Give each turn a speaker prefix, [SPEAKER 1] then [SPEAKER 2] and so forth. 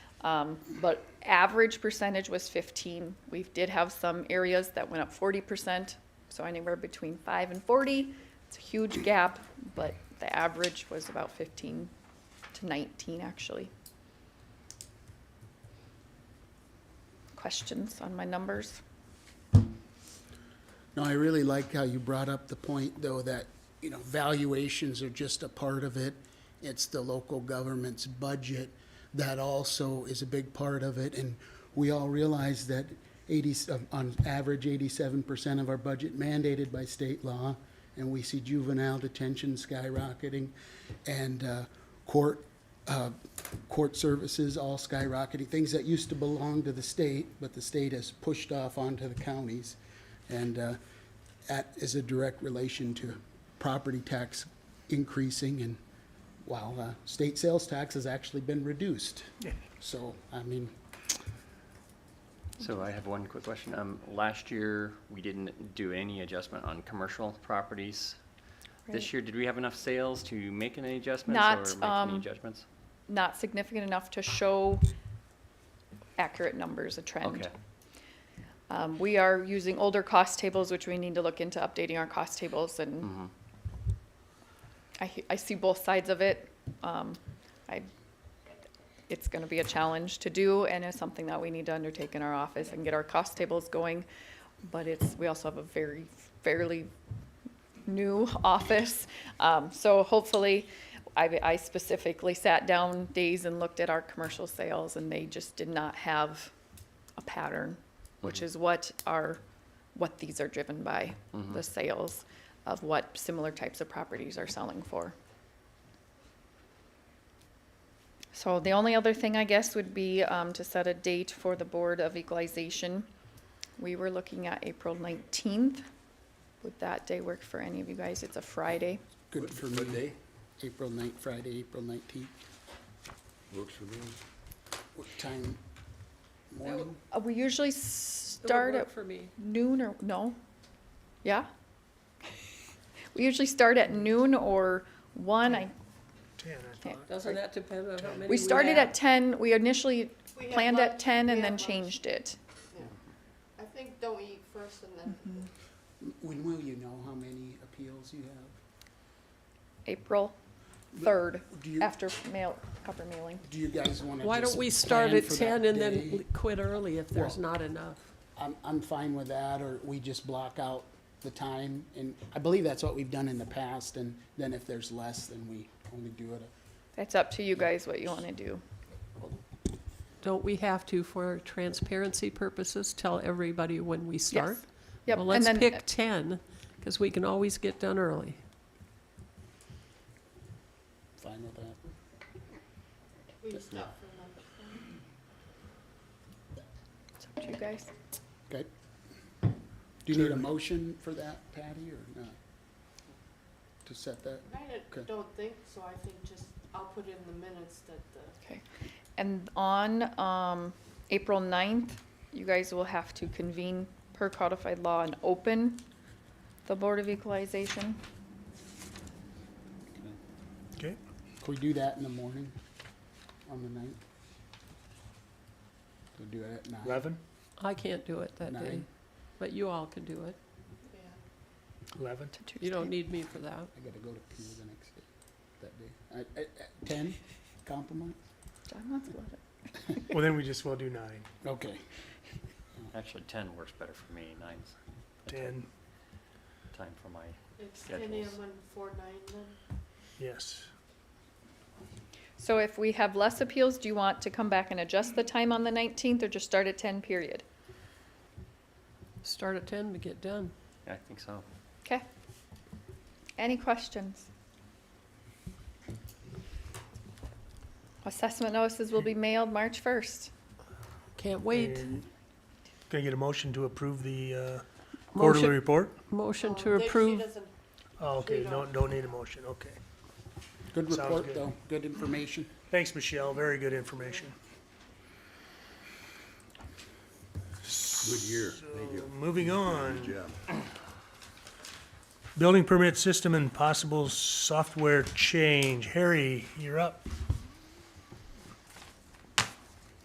[SPEAKER 1] Um, But average percentage was 15. We did have some areas that went up 40%, so anywhere between 5 and 40. It's a huge gap, but the average was about 15 to 19, actually. Questions on my numbers?
[SPEAKER 2] No, I really like how you brought up the point, though, that, you know, valuations are just a part of it. It's the local government's budget that also is a big part of it. And we all realize that eighty, um, on average, eighty-seven percent of our budget mandated by state law. And we see juvenile detention skyrocketing and uh, court, uh, court services all skyrocketing. Things that used to belong to the state, but the state has pushed off onto the counties. And uh, that is a direct relation to property tax increasing and while uh, state sales tax has actually been reduced. So, I mean,
[SPEAKER 3] So I have one quick question. Um, last year, we didn't do any adjustment on commercial properties. This
[SPEAKER 1] Right.
[SPEAKER 3] year, did we have enough sales to make any adjustments
[SPEAKER 1] Not,
[SPEAKER 3] or make
[SPEAKER 1] um,
[SPEAKER 3] any adjustments?
[SPEAKER 1] Not significant enough to show accurate numbers, a trend.
[SPEAKER 3] Okay,
[SPEAKER 1] Um, we are using older cost tables, which we need to look into updating our cost tables and I, he- I see both sides of it. Um, I, it's gonna be a challenge to do and it's something that we need to undertake in our office and get our cost tables going. But it's, we also have a very fairly new office. Um, so hopefully, I, I specifically sat down days and looked at our commercial sales and they just did not have a pattern, which is what are, what these are driven by, the sales of what similar types of properties are selling for. So the only other thing, I guess, would be um, to set a date for the Board of Equalization. We were looking at April 19th. Would that day work for any of you guys? It's a Friday.
[SPEAKER 2] good for me. April 9th, Friday, April 19th.
[SPEAKER 4] Works for me.
[SPEAKER 2] What time? Morning?
[SPEAKER 1] Uh, We usually start at
[SPEAKER 5] for me.
[SPEAKER 1] noon or, no? Yeah? We usually start at noon or one. I
[SPEAKER 5] Doesn't that depend on how many
[SPEAKER 1] We started
[SPEAKER 5] have?
[SPEAKER 1] at 10, we initially
[SPEAKER 6] We had
[SPEAKER 1] planned at
[SPEAKER 6] lunch,
[SPEAKER 1] 10
[SPEAKER 6] we
[SPEAKER 1] and
[SPEAKER 6] had
[SPEAKER 1] then
[SPEAKER 6] lunch.
[SPEAKER 1] changed it.
[SPEAKER 6] I think don't eat first and then
[SPEAKER 1] Mm-hmm.
[SPEAKER 2] When will you know how many appeals you have?
[SPEAKER 1] April 3rd,
[SPEAKER 2] Do you,
[SPEAKER 1] after mail, copper mailing.
[SPEAKER 2] do you guys want to
[SPEAKER 5] Why don't we start at ten and then l- quit early if there's
[SPEAKER 2] Well-
[SPEAKER 5] not enough?
[SPEAKER 2] I'm, I'm fine with that, or we just block out the time, and I believe that's what we've done in the past, and then if there's less, then we only do it.
[SPEAKER 1] It's up to you guys what you want to do.
[SPEAKER 5] Don't we have to, for transparency purposes, tell everybody when we start?
[SPEAKER 1] Yep,
[SPEAKER 5] Well,
[SPEAKER 1] and
[SPEAKER 5] let's
[SPEAKER 1] then- uh,
[SPEAKER 5] pick ten, because we can always get done early.
[SPEAKER 2] Fine with that.
[SPEAKER 6] we stop for lunch.
[SPEAKER 1] It's up to you guys.
[SPEAKER 2] Okay. Do you need a motion for that, Patty, or not? To set that?
[SPEAKER 6] I
[SPEAKER 2] Okay.
[SPEAKER 6] don't think so. I think just I'll put in the minutes that the
[SPEAKER 1] Okay. And on um, April 9th, you guys will have to convene per codified law and open the Board of Equalization.
[SPEAKER 7] Okay,
[SPEAKER 2] Can we do that in the morning, on the ninth? We'll do it at nine.
[SPEAKER 7] eleven,
[SPEAKER 5] I can't do it that day,
[SPEAKER 2] Nine.
[SPEAKER 5] but you all can do it.
[SPEAKER 6] yeah.
[SPEAKER 7] eleven.
[SPEAKER 1] to
[SPEAKER 5] You
[SPEAKER 1] Tuesday.
[SPEAKER 5] don't need me for that.
[SPEAKER 2] I gotta go to Pew the next day, that day. I- I- I- Ten, compliment?
[SPEAKER 1] John wants to let it.
[SPEAKER 7] Well, then we just will do nine,
[SPEAKER 2] Okay.
[SPEAKER 3] actually, ten works better for me, nine's a tight
[SPEAKER 7] ten,
[SPEAKER 3] time for my,
[SPEAKER 6] It's ten AM
[SPEAKER 3] Schedules.
[SPEAKER 6] and four nine then.
[SPEAKER 7] yes.
[SPEAKER 1] So if we have less appeals, do you want to come back and adjust the time on the 19th or just start at 10 period?
[SPEAKER 5] Start at ten to get done.
[SPEAKER 3] I think so.
[SPEAKER 1] Okay. Any questions? Assessment notices will be mailed March 1st.
[SPEAKER 5] Can't wait.
[SPEAKER 7] And Can I get a motion to approve the uh, quarterly
[SPEAKER 5] Motion,
[SPEAKER 7] report?
[SPEAKER 5] motion
[SPEAKER 6] Um,
[SPEAKER 5] to
[SPEAKER 6] they- she
[SPEAKER 5] approve.
[SPEAKER 6] doesn't-
[SPEAKER 7] Oh, okay,
[SPEAKER 6] We
[SPEAKER 7] no,
[SPEAKER 6] don't.
[SPEAKER 7] don't need a motion, okay.
[SPEAKER 2] Good
[SPEAKER 7] Sounds
[SPEAKER 2] report,
[SPEAKER 7] good.
[SPEAKER 2] though, good information.
[SPEAKER 7] Thanks, Michelle, very good information.
[SPEAKER 4] Good year. Thank
[SPEAKER 7] So,
[SPEAKER 4] you.
[SPEAKER 7] Moving on,
[SPEAKER 4] Good job.
[SPEAKER 7] building permit system and possible software change. Harry, you're up.